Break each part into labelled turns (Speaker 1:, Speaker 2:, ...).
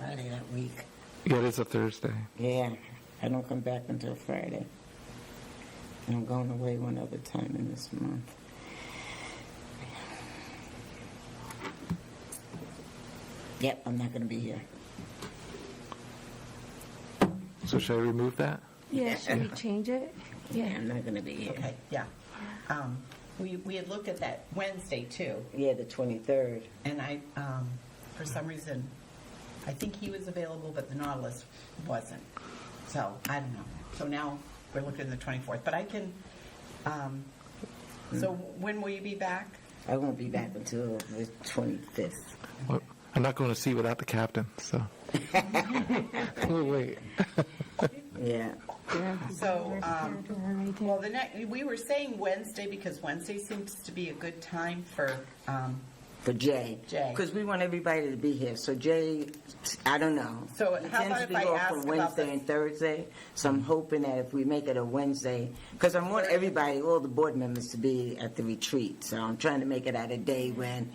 Speaker 1: that week.
Speaker 2: Yeah, it is a Thursday.
Speaker 1: Yeah, I don't come back until Friday. And I'm going away one other time in this month. Yep, I'm not going to be here.
Speaker 2: So should I remove that?
Speaker 3: Yeah, should we change it?
Speaker 1: Yeah, I'm not going to be here.
Speaker 4: Okay, yeah. Um, We, we had looked at that Wednesday too,
Speaker 1: Yeah, the 23rd.
Speaker 4: and I, um, for some reason, I think he was available, but the Nautilus wasn't. So, I don't know. So now we're looking at the 24th, but I can, um, so when will you be back?
Speaker 1: I won't be back until the 25th.
Speaker 2: Well, I'm not going to sea without the captain, so. We'll wait.
Speaker 1: Yeah.
Speaker 4: So, um,
Speaker 3: Right there.
Speaker 4: well, the next, we were saying Wednesday because Wednesday seems to be a good time for, um,
Speaker 1: For Jay.
Speaker 4: Jay.
Speaker 1: Because we want everybody to be here. So Jay, I don't know.
Speaker 4: So
Speaker 1: He
Speaker 4: how
Speaker 1: tends
Speaker 4: about
Speaker 1: to
Speaker 4: if
Speaker 1: be
Speaker 4: I
Speaker 1: off
Speaker 4: ask
Speaker 1: on
Speaker 4: about
Speaker 1: Wednesday
Speaker 4: the-
Speaker 1: and Thursday, so I'm hoping that if we make it a Wednesday, because I want
Speaker 4: Thursday.
Speaker 1: everybody, all the board members to be at the retreat. So I'm trying to make it at a day when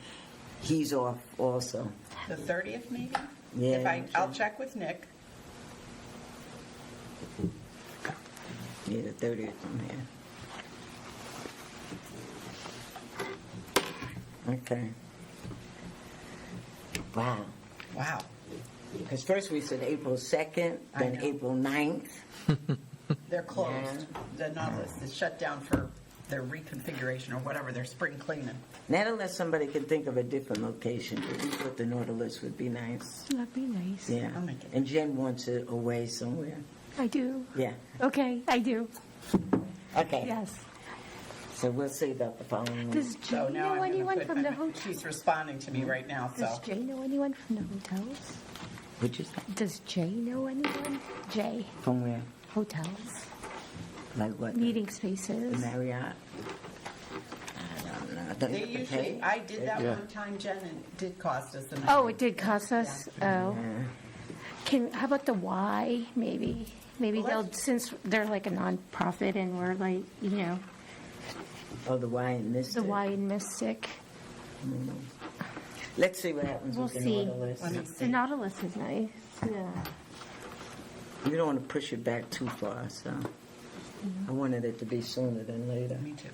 Speaker 1: he's off also.
Speaker 4: the 30th maybe?
Speaker 1: Yeah,
Speaker 4: If I,
Speaker 1: sure.
Speaker 4: I'll check with Nick.
Speaker 1: Yeah, the 30th, I'm here. Okay. Wow.
Speaker 4: Wow.
Speaker 1: Because first we said April 2nd,
Speaker 4: I
Speaker 1: then
Speaker 4: know.
Speaker 1: April 9th.
Speaker 4: They're closed. The Nautilus is shut down for their reconfiguration or whatever, their spring cleaning.
Speaker 1: Not unless somebody can think of a different location, but we thought the Nautilus would be nice.
Speaker 3: That'd be nice.
Speaker 1: Yeah.
Speaker 4: I'll make it.
Speaker 1: And Jen wants it away somewhere.
Speaker 3: I do.
Speaker 1: Yeah.
Speaker 3: Okay, I do.
Speaker 1: Okay.
Speaker 3: Yes.
Speaker 1: So we'll see about the following week.
Speaker 3: Does Jay
Speaker 4: So now
Speaker 3: know
Speaker 4: I'm
Speaker 3: anyone
Speaker 4: gonna
Speaker 3: from the
Speaker 4: put, my-
Speaker 3: hotel?
Speaker 4: she's responding to me right now,
Speaker 3: Does
Speaker 4: so.
Speaker 3: Jay know anyone from the hotels?
Speaker 1: Would you say?
Speaker 3: Does Jay know anyone? Jay,
Speaker 1: From where?
Speaker 3: hotels,
Speaker 1: Like what?
Speaker 3: meeting
Speaker 1: The
Speaker 3: spaces.
Speaker 1: Marriott? I don't know. Don't
Speaker 4: They
Speaker 1: have to
Speaker 4: usually,
Speaker 1: pay?
Speaker 4: I did that
Speaker 2: Yeah.
Speaker 4: one time, Jen, and it did cost us an.
Speaker 3: Oh, it did cost us. Oh,
Speaker 1: Yeah.
Speaker 3: can how about the Y? Maybe, maybe
Speaker 4: Well,
Speaker 3: they'll since they're like a nonprofit and we're like you know
Speaker 1: Oh, the Y and this.
Speaker 3: the Y in Mystic.
Speaker 1: Let's see what happens
Speaker 3: We'll
Speaker 1: with the
Speaker 3: see.
Speaker 1: Nautilus.
Speaker 4: Let me
Speaker 3: The
Speaker 4: see.
Speaker 3: Nautilus is nice. Yeah.
Speaker 1: We don't want to push it back too far, so
Speaker 3: Mm-hmm.
Speaker 1: I wanted it to be sooner than later.
Speaker 4: Me too.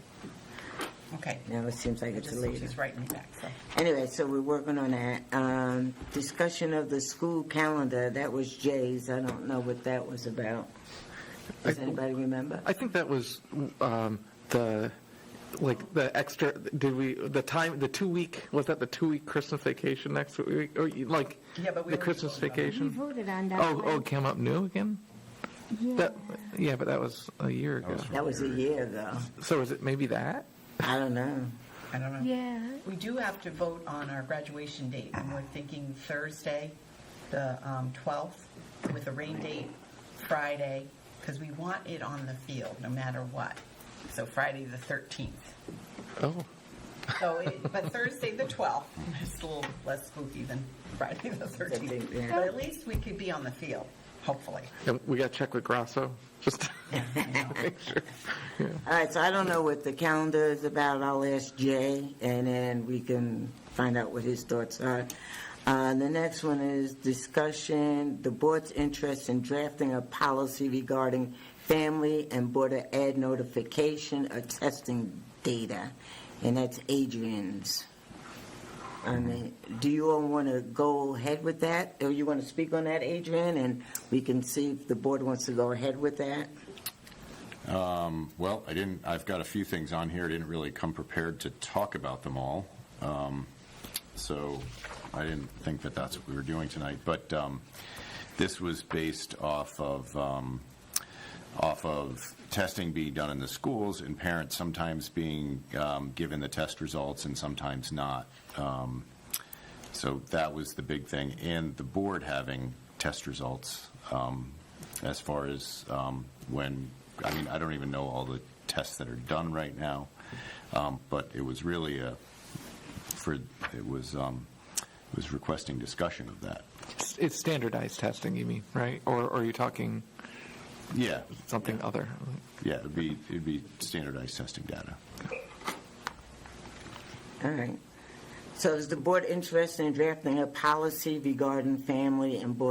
Speaker 4: Okay.
Speaker 1: Now it seems like
Speaker 4: I
Speaker 1: it's
Speaker 4: just-
Speaker 1: later.
Speaker 4: She's writing me back, so.
Speaker 1: Anyway, so we're working on that. Um, discussion of the school calendar, that was Jay's. I don't know what that was about. Does anybody remember?
Speaker 2: I think that was um, the, like, the extra, did we, the time, the two-week, was that the two-week Christmas vacation next week? Or, you- like,
Speaker 4: Yeah, but we
Speaker 2: the
Speaker 4: already
Speaker 2: Christmas
Speaker 4: voted on it.
Speaker 3: We
Speaker 2: vacation?
Speaker 3: voted on that.
Speaker 2: Oh, oh,
Speaker 3: one.
Speaker 2: it came up new again?
Speaker 3: Yeah.
Speaker 2: That, yeah, but that was a year ago.
Speaker 1: That was a year ago.
Speaker 2: So is it maybe that?
Speaker 1: I don't know.
Speaker 4: I don't know.
Speaker 3: Yeah.
Speaker 4: We do have to vote on our graduation date, and we're thinking Thursday, the um, 12th, with a rain date Friday, because we want it on the field, no matter what. So Friday, the 13th.
Speaker 2: Oh,
Speaker 4: So, it- but Thursday, the 12th, is a little less spooky than Friday, the 13th.
Speaker 1: Yeah.
Speaker 4: But at least we could be on the field, hopefully.
Speaker 2: and we got to check with Grasso, just to make sure.
Speaker 1: All right, so I don't know what the calendar is about. I'll ask Jay, and then we can find out what his thoughts are. Uh, the next one is discussion, the board's interest in drafting a policy regarding family and border ad notification or testing data. And that's Adrian's. I mean, do you all want to go ahead with that? Or you want to speak on that, Adrian? And we can see if the board wants to go ahead with that?
Speaker 5: Well, I didn't, I've got a few things on here, I didn't really come prepared to talk about them all, Um, so I didn't think that that's what we were doing tonight, but um, this was based off of, um, off of testing being done in the schools and parents sometimes being um, given the test results and sometimes not. Um, So that was the big thing, and the board having test results um, as far as um, when, I mean, I don't even know all the tests that are done right now, um, but it was really a, for, it was, um, it was requesting discussion of that.
Speaker 2: It's- It's standardized testing, you mean, right? Or or are you talking
Speaker 5: Yeah,
Speaker 2: something other?
Speaker 5: yeah, it'd be, it'd be standardized testing data.
Speaker 1: All right. So is the board interested in drafting a policy regarding family and board